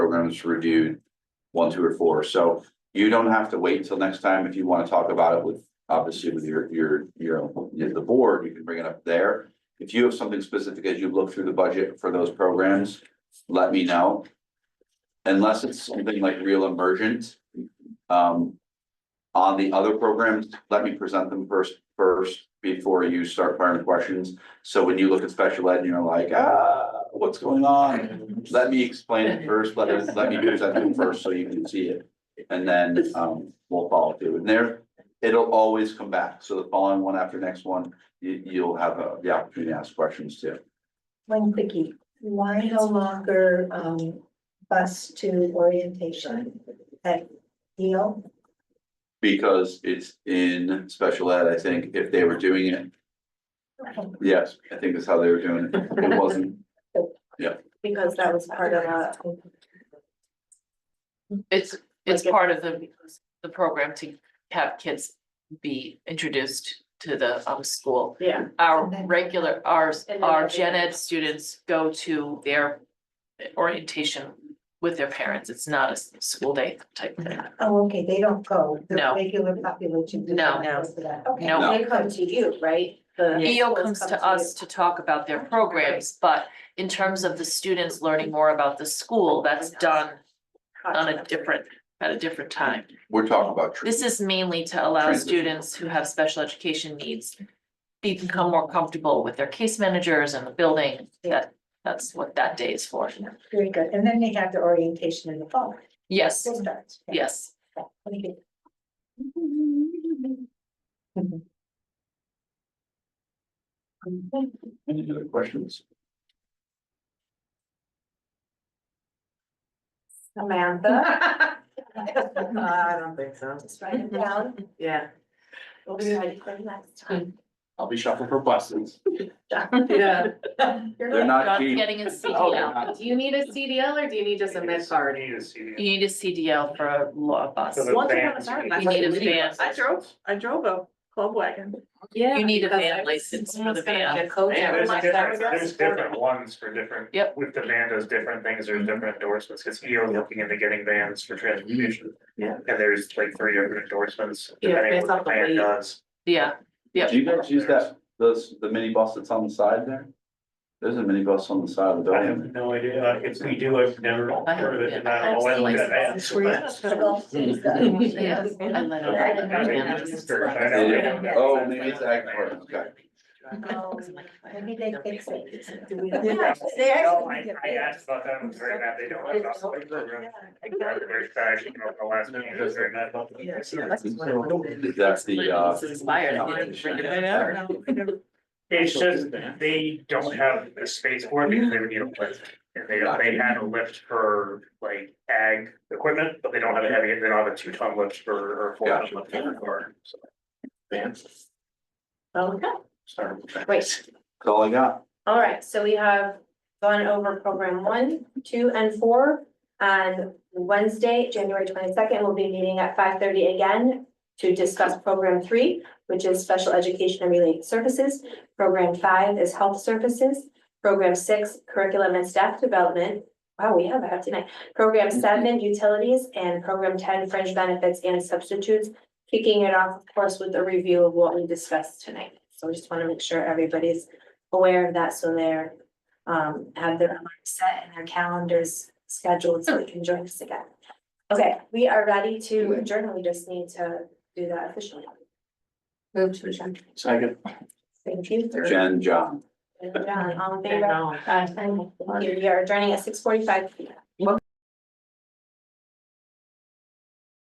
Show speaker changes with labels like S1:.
S1: terms reviewed, one, two, or four. So you don't have to wait until next time if you want to talk about it with, obviously with your, your, your, the board, you can bring it up there. If you have something specific as you look through the budget for those programs, let me know. Unless it's something like real emergent. Um. On the other programs, let me present them first, first, before you start firing questions. So when you look at special ed and you're like, ah, what's going on? Let me explain it first, let us, let me present them first so you can see it. And then, um, we'll follow through. And there, it'll always come back. So the following one after next one, you, you'll have uh, the opportunity to ask questions too.
S2: One quickie, why no longer um bus to orientation at Yale?
S1: Because it's in special ed, I think, if they were doing it, yes, I think that's how they were doing it. It wasn't,
S2: Because that was part of a.
S3: It's,
S2: Like
S3: it's
S2: if-
S3: part of the, the program to have kids be introduced to the, um, school.
S2: Yeah.
S3: Our
S2: And then-
S3: regular, our,
S2: And then
S3: our
S2: they-
S3: gen ed students go to their orientation with their parents. It's not a s- school day type thing.
S2: Oh, okay, they don't go, the
S3: No.
S2: regular population. does
S3: No.
S2: not go to that. Okay,
S3: No.
S4: They come to you, right? The
S3: EO
S4: schools
S3: comes
S4: come
S3: to us to talk about their programs, but in terms of the students learning more about the school, that's done on a different, at a different time.
S1: we're talking about. tr-
S3: This is mainly to allow
S1: Transition.
S3: students who have special education needs. Be become more comfortable with their case managers and the building, that, that's what that day is for.
S2: Very good, and then they have the orientation in the fall.
S3: Yes,
S2: School starts.
S3: yes,
S2: Thank you.
S1: Any other questions?
S4: Samantha? Uh, I don't think so,
S2: Just write it down,
S4: yeah.
S2: we'll be ready for the next time.
S1: I'll be shopping for buses.
S4: Yeah.
S1: They're not
S3: John's
S1: cheap.
S3: getting a
S1: Oh, they're
S3: CDL,
S1: not.
S4: Do you need a CDL or do you need just a med card?
S5: Need to see
S3: you
S5: it.
S3: need a CDL for a law bus,
S5: So the
S4: Once upon a
S5: vans,
S4: time,
S5: you
S4: I
S5: need-
S3: you need a van.
S6: I drove, I drove a club wagon.
S4: Yeah.
S3: You need a
S4: because
S3: van
S4: I was
S3: license for the
S4: almost gonna
S3: van.
S4: get coach
S5: Yeah, there's
S4: license.
S5: different, there's different ones for different.
S3: Yep. Mm-hmm.
S5: With the van, there's different things, there's different endorsements, because you're looking into getting vans for transportation.
S6: Yeah.
S5: And there's like three different endorsements,
S4: Yeah,
S5: depending
S4: based
S5: what
S4: off
S5: the
S4: the
S5: van
S4: weight.
S5: does.
S3: yeah, yeah.
S1: Do you guys use that, those, the mini bus that's on the side there? There's a mini bus on the side of the
S5: I
S1: building.
S5: have no idea, uh, if we do, I've never
S3: I have-
S5: heard of it, and I
S3: I've
S5: don't know
S3: seen
S5: why we got
S3: license.
S5: asked. but-
S3: Yes, I let
S5: I
S3: it.
S5: don't know, it's for- I don't know.
S2: Yeah.
S1: Oh, maybe it's Agcorp, okay.
S2: Oh, Maybe they fix it. Do we-
S6: Yeah.
S2: They
S5: No,
S2: actually
S5: I,
S2: did
S5: I
S2: it.
S5: asked about that, I was very mad they don't have that. like, program. I'm very sad, I should know the last meeting, I was very mad about that.
S1: That's the, uh.
S3: It's inspired, I didn't bring it up.
S5: It's just, they don't have the space for it because they would need a lift. And they, they had a lift for like ag equipment, but they don't have a heavy, they don't have a two ton lift for, or a four ton lift for or. Vans,
S6: Oh,
S4: Okay,
S5: sorry.
S4: great.
S1: That's all I got.
S4: All right, so we have gone over program one, two, and four. On Wednesday, January twenty-second, we'll be meeting at five thirty again to discuss program three, which is special education and related services. Program five is health services. Program six, curriculum and staff development. Wow, we have that tonight. Program seven, utilities, and program ten, fringe benefits and substitutes. Kicking it off, of course, with a review of what we discussed tonight. So we just want to make sure everybody's aware of that, so they're um, have their alarm set and their calendars scheduled so they can join us again. Okay, we are ready to adjourn. We just need to do that officially. Move to adjourn.
S1: Second.
S4: Thank you.
S1: Jen, John.
S4: John, all in favor? Aye. Thank you. We are adjourning at six forty-five. p.m.